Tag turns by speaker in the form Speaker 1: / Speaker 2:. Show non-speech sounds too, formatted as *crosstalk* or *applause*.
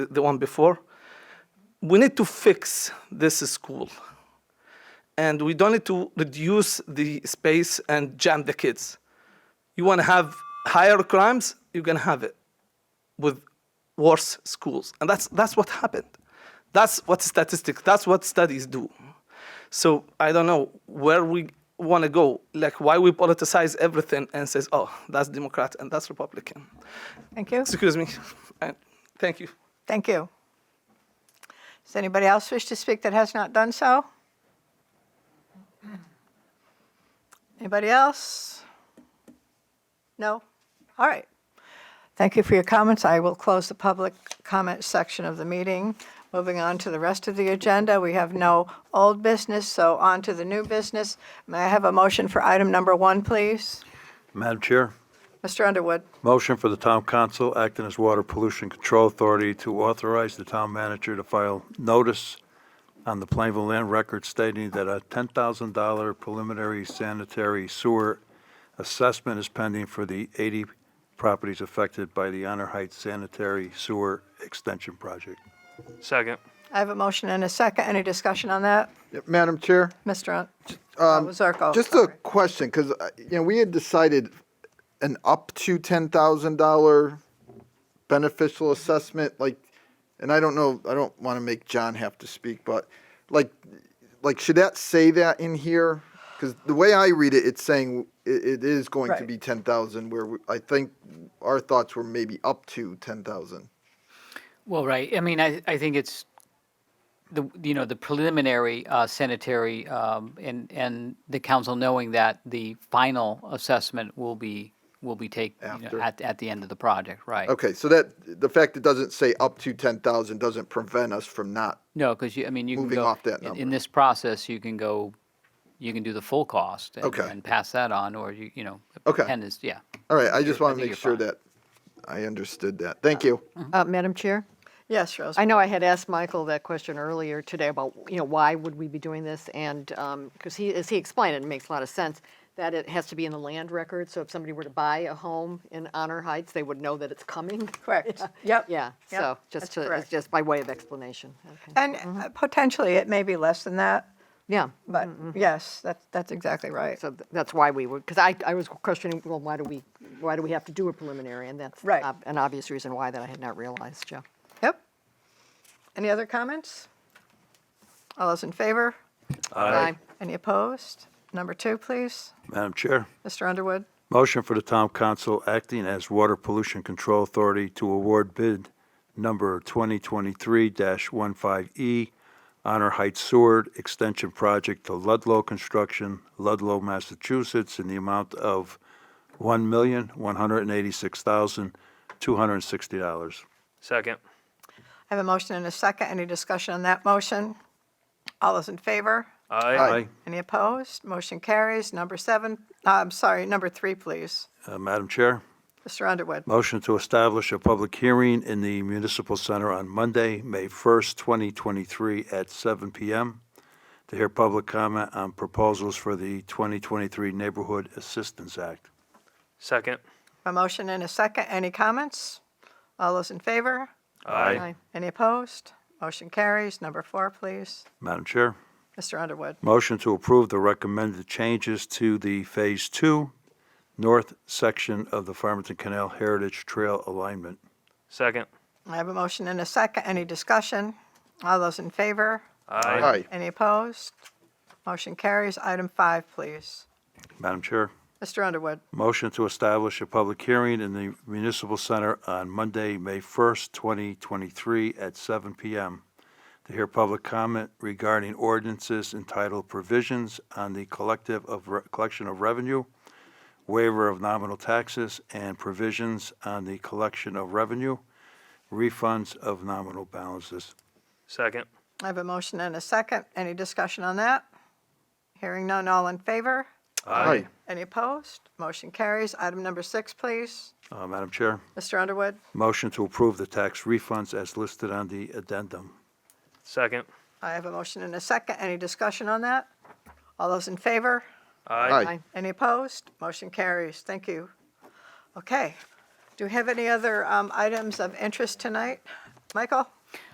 Speaker 1: the one before. We need to fix this school. And we don't need to reduce the space and jam the kids. You want to have higher crimes, you can have it with worse schools. And that's, that's what happened. That's what statistics, that's what studies do. So I don't know where we want to go, like why we politicize everything and says, oh, that's Democrat and that's Republican.
Speaker 2: Thank you.
Speaker 1: Excuse me. *laughs* And thank you.
Speaker 2: Thank you. Does anybody else wish to speak that has not done so? Anybody else? No? All right. Thank you for your comments. I will close the public comment section of the meeting. Moving on to the rest of the agenda, we have no old business, so on to the new business. May I have a motion for item number one, please?
Speaker 3: Madam Chair,
Speaker 2: Mr. Underwood?
Speaker 3: motion for the town council acting as water pollution control authority to authorize the town manager to file notice on the Plainville Land Record stating that a $10,000 preliminary sanitary sewer assessment is pending for the 80 properties affected by the Honor Heights Sanitary Sewer Extension Project.
Speaker 4: Second.
Speaker 2: I have a motion and a second. Any discussion on that?
Speaker 5: Madam Chair,
Speaker 2: Mr. Un- uh, Zarko?
Speaker 5: just a
Speaker 2: sorry.
Speaker 5: question, because, you know, we had decided an up to $10,000 beneficial assessment, like, and I don't know, I don't want to make John have to speak, but like, like, should that say that in here? Because the way I read it, it's saying it, it is going to
Speaker 2: Right.
Speaker 5: be 10,000, where we- I think our thoughts were maybe up to 10,000.
Speaker 6: Well, right. I mean, I, I think it's the you know the preliminary uh, sanitary um, and and the council knowing that the final assessment will be will be take you
Speaker 5: After.
Speaker 6: know, at at the end of the project, right?
Speaker 5: Okay, so that, the fact it doesn't say up to 10,000 doesn't prevent us from not
Speaker 6: No, because you I mean you
Speaker 5: Moving
Speaker 6: can go
Speaker 5: off that
Speaker 6: in- in
Speaker 5: number.
Speaker 6: this process you can go you can do the full cost and,
Speaker 5: Okay.
Speaker 6: and pass that on or you you know
Speaker 5: Okay.
Speaker 6: ten is yeah
Speaker 5: All right, I just
Speaker 6: Sure, I
Speaker 5: want to
Speaker 6: think
Speaker 5: make sure
Speaker 6: you're
Speaker 5: that I understood that. Thank you.
Speaker 7: Uh, Madam Chair,
Speaker 2: Yes, Rose.
Speaker 7: I know I had asked Michael that question earlier today about, you know, why would we be doing this? And, because he, as he explained, it makes a lot of sense that it has to be in the land record. So if somebody were to buy a home in Honor Heights, they would know that it's coming. *laughs*
Speaker 2: Correct. Yep.
Speaker 7: Yeah,
Speaker 2: Yep,
Speaker 7: so
Speaker 2: that's
Speaker 7: just to,
Speaker 2: correct.
Speaker 7: it's just by way of explanation. Okay.
Speaker 2: And uh, potentially, it may be less than that,
Speaker 7: Yeah,
Speaker 2: but yes, that's, that's exactly right.
Speaker 7: Mm-hmm. so th- that's why we would, because I, I was questioning, well, why do we, why do we have to do a preliminary? And that's
Speaker 2: Right.
Speaker 7: ob- an obvious reason why that I had not realized, Joe.
Speaker 2: Yep. Any other comments? All those in favor?
Speaker 7: Aye.
Speaker 2: Any opposed? Number two, please.
Speaker 3: Madam Chair.
Speaker 2: Mr. Underwood?
Speaker 3: Motion for the town council acting as water pollution control authority to award bid number 2023-15E E, Honor Heights Seward Extension Project to Ludlow Construction, Ludlow, Massachusetts, in the amount of $1,186,260.
Speaker 4: Second.
Speaker 2: I have a motion and a second. Any discussion on that motion? All those in favor?
Speaker 4: Aye.
Speaker 3: Aye.
Speaker 2: Any opposed? Motion carries. Number seven, uh, I'm sorry, number three, please.
Speaker 3: Uh, Madam Chair?
Speaker 2: Mr. Underwood?
Speaker 3: Motion to establish a public hearing in the Municipal Center on Monday, May 1st, 2023, at 7 PM to hear public comment on proposals for the 2023 Neighborhood Assistance Act.
Speaker 4: Second.
Speaker 2: A motion and a second. Any comments? All those in favor?
Speaker 7: Aye.
Speaker 2: Any opposed? Motion carries. Number four, please.
Speaker 3: Madam Chair?
Speaker 2: Mr. Underwood.
Speaker 3: Motion to approve the recommended changes to the Phase 2 North section of the Farmington Canal Heritage Trail alignment.
Speaker 4: Second.
Speaker 2: I have a motion and a second. Any discussion? All those in favor?
Speaker 4: Aye.
Speaker 5: Hi.
Speaker 2: Any opposed? Motion carries. Item five, please.
Speaker 3: Madam Chair?
Speaker 2: Mr. Underwood.
Speaker 3: Motion to establish a public hearing in the Municipal Center on Monday, May 1st, 2023, at 7 PM to hear public comment regarding ordinances entitled Provisions on the Collective of, Re- Collection of Revenue, Waiver of Nominal Taxes, and Provisions on the Collection of Revenue, Refunds of Nominal Balances.
Speaker 4: Second.
Speaker 2: I have a motion and a second. Any discussion on that? Hearing none, all in favor?
Speaker 5: Hi.
Speaker 2: Any opposed? Motion carries. Item number six, please.
Speaker 3: Uh, Madam Chair,
Speaker 2: Mr. Underwood.
Speaker 3: motion to approve the tax refunds as listed on the addendum.
Speaker 4: Second.
Speaker 2: I have a motion and a second. Any discussion on that? All those in favor?
Speaker 4: Aye.
Speaker 7: Aye.
Speaker 2: Any opposed? Motion carries. Thank you. Okay. Do we have any other um, items of interest tonight? Michael?